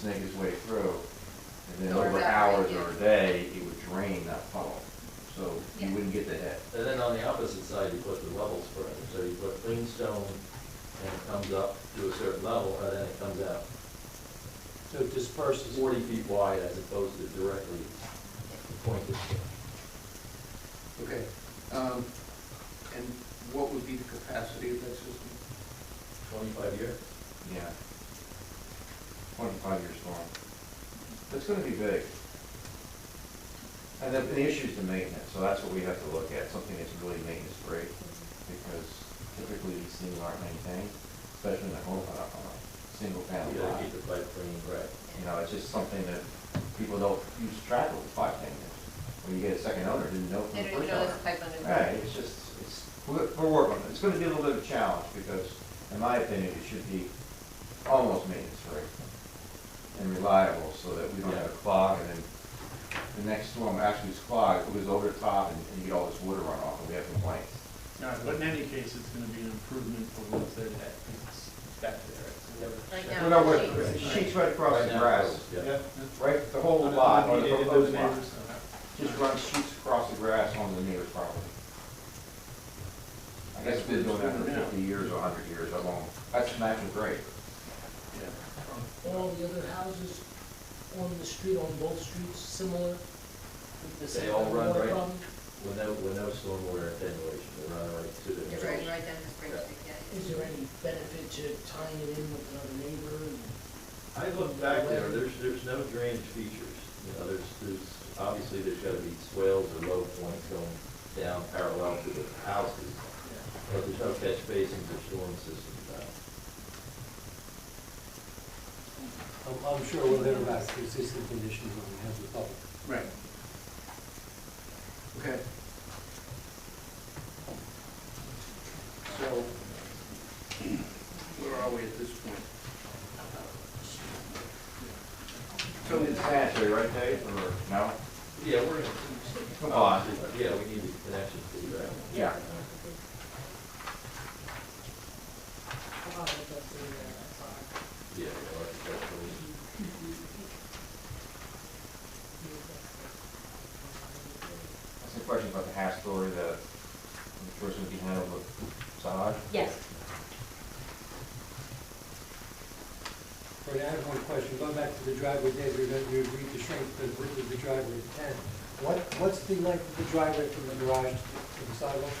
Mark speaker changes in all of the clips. Speaker 1: snake its way through, and then
Speaker 2: Or
Speaker 1: over
Speaker 2: that
Speaker 1: hours
Speaker 2: way,
Speaker 1: or a
Speaker 2: yeah.
Speaker 1: day, it would drain that funnel, so you
Speaker 2: Yeah.
Speaker 1: wouldn't get the head.
Speaker 3: And then on the opposite side, you put the level spreader, so you put clean stone, and it comes up to a certain level, and then it comes out
Speaker 4: So it disperses.
Speaker 3: forty feet wide as opposed to directly pointed.
Speaker 5: Okay, um, and what would be the capacity of that system?
Speaker 3: Twenty-five year?
Speaker 1: Yeah. Twenty-five year storm. It's gonna be big. And the, the issue's the maintenance, so that's what we have to look at, something that's really maintenance free, because typically these things aren't maintained, especially in a home, on a, on a single family
Speaker 3: You
Speaker 1: lot.
Speaker 3: gotta keep the pipe clean, right?
Speaker 1: You know, it's just something that people don't use track of five, ten years. When you get a second owner, didn't know
Speaker 2: They
Speaker 1: from the
Speaker 2: don't even
Speaker 1: first
Speaker 2: know
Speaker 1: owner.
Speaker 2: there's a pipe under there.
Speaker 1: Right, it's just, it's, we're, we're working, on it. it's gonna be a little bit of a challenge, because in my opinion, it should be almost maintenance free and reliable, so that we don't have a clog, and then the next storm actually is clogged, it goes over the top, and, and you get all this water runoff, and we have complaints.
Speaker 4: No, but in any case, it's gonna be an improvement for what's there, that is back there. It's never
Speaker 2: Right
Speaker 4: shut.
Speaker 2: now.
Speaker 1: No, no, wait,
Speaker 2: sheets.
Speaker 1: it's sheets right across the
Speaker 3: Right now,
Speaker 1: grass,
Speaker 3: Yeah.
Speaker 1: right, the whole
Speaker 4: Not
Speaker 1: lot, or the
Speaker 4: immediate, it
Speaker 1: proposed
Speaker 4: doesn't
Speaker 1: lot,
Speaker 4: ever stop.
Speaker 1: just run sheets across the grass onto the neighbor's property. I guess we've been doing that for fifty years, or hundred years, how long, that's natural grade.
Speaker 4: Yeah.
Speaker 6: all the other houses on the street, on both streets, similar? with the
Speaker 3: They
Speaker 6: same
Speaker 3: all run
Speaker 6: water
Speaker 3: right-
Speaker 6: problem?
Speaker 3: With no, with no stormwater attenuation, they run right to the.
Speaker 2: You're right, right down the spring,
Speaker 3: Yeah.
Speaker 2: street, yeah.
Speaker 6: Is there any benefit to tying it in with another neighbor? and-
Speaker 3: I look back there, there's, there's no drainage features, you know, there's, there's, obviously, there's gotta be swales or low points going down parallel to the houses, but there's no catch basins or storm systems out.
Speaker 7: I'm, I'm sure we'll hear about the existing conditions when we have the public.
Speaker 5: Right. Okay. So, where are we at this point?
Speaker 1: So it's sanitary, right, Dave, or no? Oh,
Speaker 3: Yeah, we're. uh,
Speaker 1: Come on.
Speaker 3: Yeah, we need the connection to the ground.
Speaker 1: Yeah.
Speaker 6: Oh, that's the, uh, fire.
Speaker 3: Yeah, yeah, architecturally.
Speaker 1: Some questions about the half story, the, the person would be handled with sod?
Speaker 8: Yes.
Speaker 7: But I have one question, going back to the driveway, Dave, we we agreed to shrink the width of the driveway to ten. What, what's the length of the driveway from the garage to the sidewalk?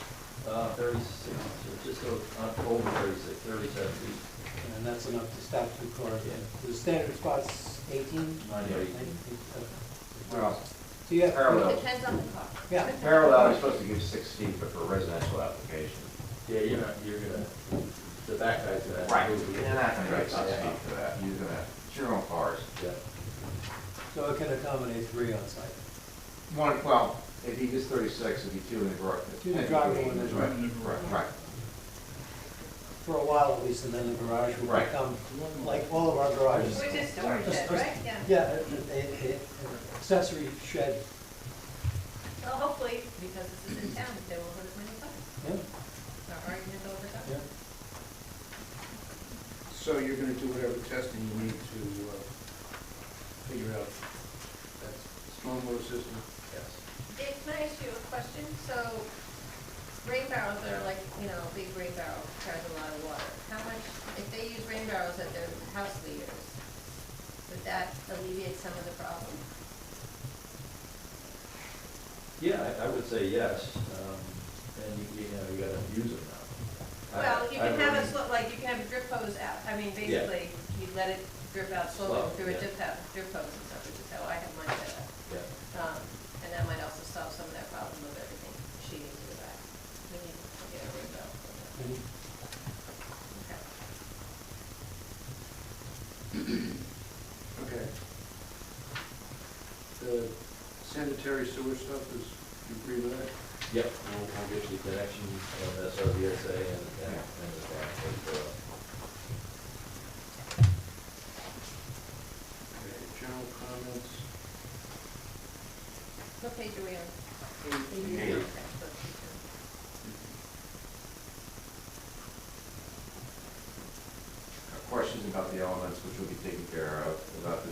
Speaker 3: Uh, thirty-six, or just o- uh, over thirty-six, thirty-seven feet.
Speaker 7: And that's enough to stop two cars. The standard spot's eighteen?
Speaker 3: Ninety-eight.
Speaker 1: Well,
Speaker 7: So you have,
Speaker 1: parallel,
Speaker 2: Depends on the car.
Speaker 7: yeah,
Speaker 1: parallel, is supposed to give six feet, but for residential application.
Speaker 3: Yeah, you're not, you're gonna, the back guy's gonna.
Speaker 1: You're not gonna get six
Speaker 3: Yeah.
Speaker 1: feet for that, you're gonna, it's your own cars.
Speaker 3: Yeah.
Speaker 7: so it can accommodate three on site.
Speaker 1: One, well, if he gets thirty-six, it'd be two in the garage.
Speaker 7: Two in the driveway, one in the
Speaker 1: Right,
Speaker 4: driveway.
Speaker 1: right, right.
Speaker 7: For a while at least, and then the garage will
Speaker 1: Right.
Speaker 7: become, like all of our garages.
Speaker 2: Which is storage shed, right? Yeah.
Speaker 7: Yeah, a- a- a- accessory shed,
Speaker 2: Well, hopefully, because this is in town, they will put as many cars.
Speaker 7: yeah,
Speaker 2: Our argument over that.
Speaker 7: yeah.
Speaker 5: So you're gonna do whatever testing you need to, uh, figure out that stormwater system?
Speaker 3: Yes.
Speaker 2: Dave, can I ask you a question? So rain barrels are like, you know, a big rain barrel carries a lot of water. How much, if they use rain barrels at their house leaders, would that alleviate some of the problem?
Speaker 3: Yeah, I, I would say yes, um, and you, you know, you gotta use them now. I-
Speaker 2: Well, you
Speaker 3: I
Speaker 2: can have a,
Speaker 3: really-
Speaker 2: slo- like, you can have a drip hose out, I mean,
Speaker 3: Yeah.
Speaker 2: basically, you let it drip out slowly
Speaker 3: Slow,
Speaker 2: through a
Speaker 3: yeah.
Speaker 2: drip hose, drip hose and stuff, which is how I have mine set up.
Speaker 3: Yeah,
Speaker 2: Um, and that might also solve some of that problem of everything sheeting to the back. We need to get a rain barrel. for that.
Speaker 7: And
Speaker 2: Okay.
Speaker 5: Okay. The sanitary sewer stuff is, you agree with that?
Speaker 3: yep, we'll, we'll get you the connection on S O B S A and, and, and the back, but, uh,
Speaker 5: Okay, general comments?
Speaker 2: What page are we on?
Speaker 3: Eight.
Speaker 2: Okay,
Speaker 1: Questions about the elements, which will be taken care of, about the